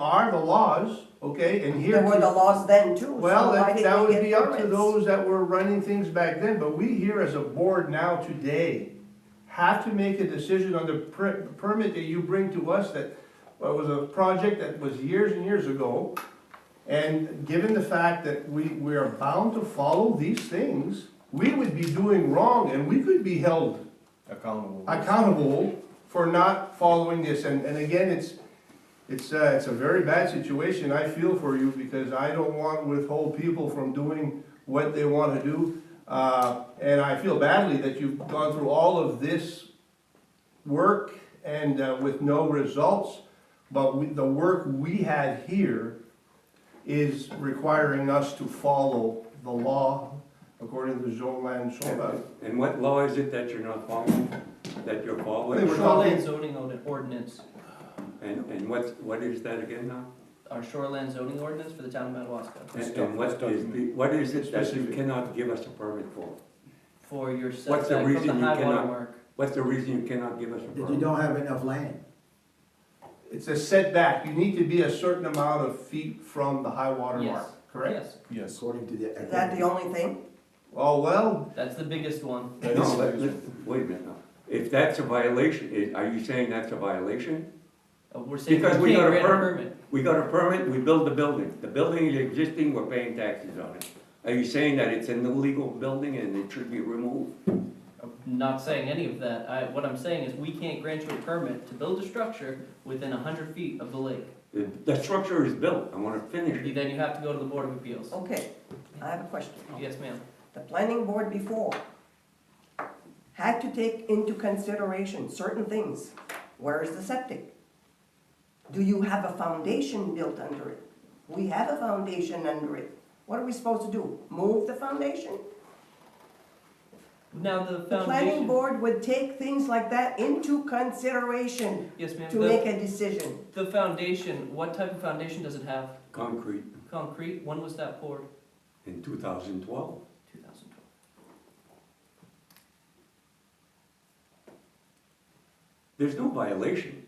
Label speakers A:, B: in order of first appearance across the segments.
A: are the laws, okay, and here.
B: There were the laws then too, so
A: Well,
B: why
A: that,
B: did
A: that
B: they
A: would
B: get
A: be up to
B: permits?
A: those that were running things back then, but we here as a board now today have to make a decision on the per- permit that you bring to us that, well, was a project that was years and years ago. And given the fact that we, we are bound to follow these things, we would be doing wrong and we could be held
C: accountable.
A: accountable for not following this, and, and again, it's, it's, uh, it's a very bad situation, I feel for you, because I don't want to withhold people from doing what they wanna do, uh, and I feel badly that you've gone through all of this work and, uh, with no results, but we, the work we had here is requiring us to follow the law according to zone land, zone, uh,
D: And what law is it that you're not following, that you're
A: They were-
D: following?
E: Shoreland zoning ord- ordinance,
D: And, and what, what is that again now?
E: our shoreland zoning ordinance for the town of Madawaska,
D: And- And what is, the- what is it that you
A: Specific.
D: cannot give us a permit for?
E: for your
D: What's the
E: setback from the
D: reason you
E: high water
D: cannot-
E: mark.
D: What's the reason you cannot give us a
F: That you
D: permit?
F: don't have enough land.
A: It's a setback, you need to be a certain amount of feet from the high water
E: Yes.
A: mark, correct?
E: Yes,
C: Yes.
F: According to the.
B: Is that the only thing?
A: Oh, well,
E: that's the biggest one.
C: That
D: No,
C: is-
D: let- let- wait a minute now. If that's a violation, i- are you saying that's a violation?
E: Uh, We're saying
D: Because
E: we
D: we got
E: can't
D: a
E: grant a
D: per-
E: permit.
D: We got a permit, we built the building. The building is existing, we're paying taxes on it. Are you saying that it's an illegal building and it should be removed?
E: I'm Uh, Not saying any of that, I, what I'm saying is we can't grant you a permit to build a structure within hundred feet of the lake.
D: The the structure is built, I wanna finish it.
E: You- Then you have to go to the Board of Appeals.
B: Okay, I have a question.
E: Yes, ma'am.
B: The planning board before had to take into consideration certain things. Where is the septic? Do you have a foundation built under it? We have a foundation under it. What are we supposed to do? Move the foundation?
E: Now, the
B: The planning
E: foundation,
B: board would take things like that into consideration
E: yes, ma'am,
B: to
E: the,
B: make a decision.
E: the foundation, what type of foundation does it have?
D: Concrete
E: Concrete, when was that poured?
D: in two thousand twelve.
E: Two thousand twelve.
D: There's no violation.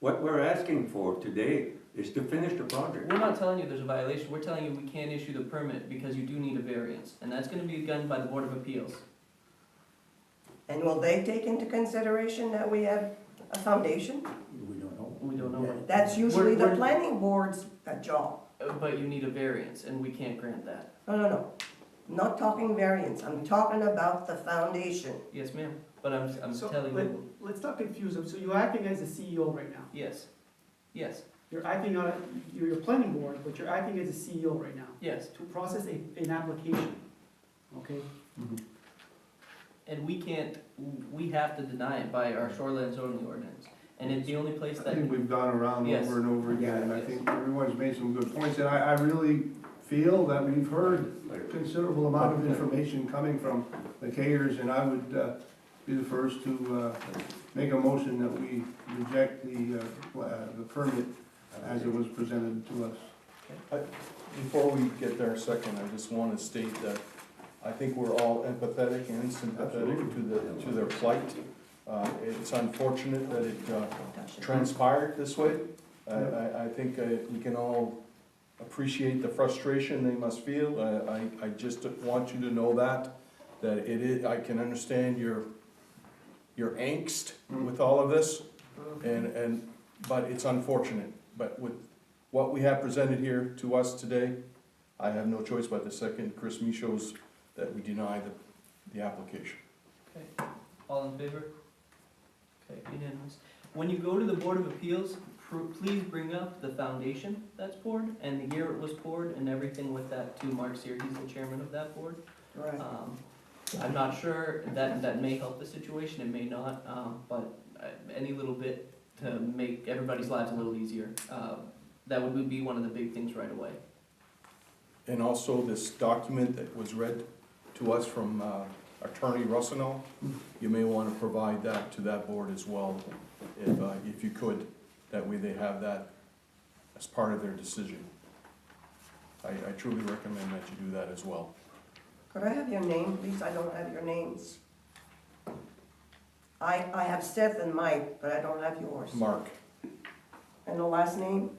D: What we're asking for today is to finish the project.
E: We're not telling you there's a violation, we're telling you we can't issue the permit because you do need a variance, and that's gonna be done by the Board of Appeals.
B: And will they take into consideration that we have a foundation?
F: We don't know.
E: We don't know what-
B: That's usually the
E: We're- we're-
B: planning board's uh, job.
E: Uh, But you need a variance, and we can't grant that.
B: No, no, no. Not talking variance. I'm talking about the foundation.
E: Yes, ma'am, but I'm, I'm
G: So,
E: telling
G: let-
E: you,
G: Let's not confuse them, so you're acting as the CEO right now.
E: yes, yes,
G: You're acting on, you're your planning board, but you're acting as a CEO right now,
E: yes,
G: to process a, an application, okay?
A: Mm-hmm.
E: and we can't, we have to deny it by our shoreline zoning ordinance, and it's the only place
A: I
E: that,
A: think we've gone around
E: Yes.
A: over and over again, and I
E: Yes.
A: think everyone's made some good points, and I, I really feel that we've heard a considerable amount of information coming from the Kayers, and I would, uh, be the first to, uh, make a motion that we reject the, uh, uh, the permit as it was presented to us.
C: Before we get there a second, I just want to state that I think we're all empathetic and sympathetic to the, to their plight. Uh, It's unfortunate that it uh, transpired this way. I, I, I think uh, we can all appreciate the frustration they must feel. I, I, I just want you to know that, that it is, I can understand your, your angst with all of this. And, and, but it's unfortunate. But with what we have presented here to us today, I have no choice but to second Chris Micho's that we deny the, the application.
E: all in favor? Okay, unanimous. When you go to the Board of Appeals, pr- please bring up the foundation that's poured, and the year it was poured, and everything with that to Mark Sear, he's the chairman of that board.
B: Right.
E: Um, I'm not sure, that, that may help the situation, it may not, um, but uh, any little bit to make everybody's lives a little easier, uh, that would be one of the big things right away.
C: And also this document that was read to us from uh, Attorney Russino, you may want to provide that to that board as well, if, uh, if you could. That way they have that as part of their decision. I, I truly recommend that you do that as well.
B: Could I have your name, please? I don't have your names. I, I have Seth and Mike, but I don't have yours.
C: Mark,
B: And the last name?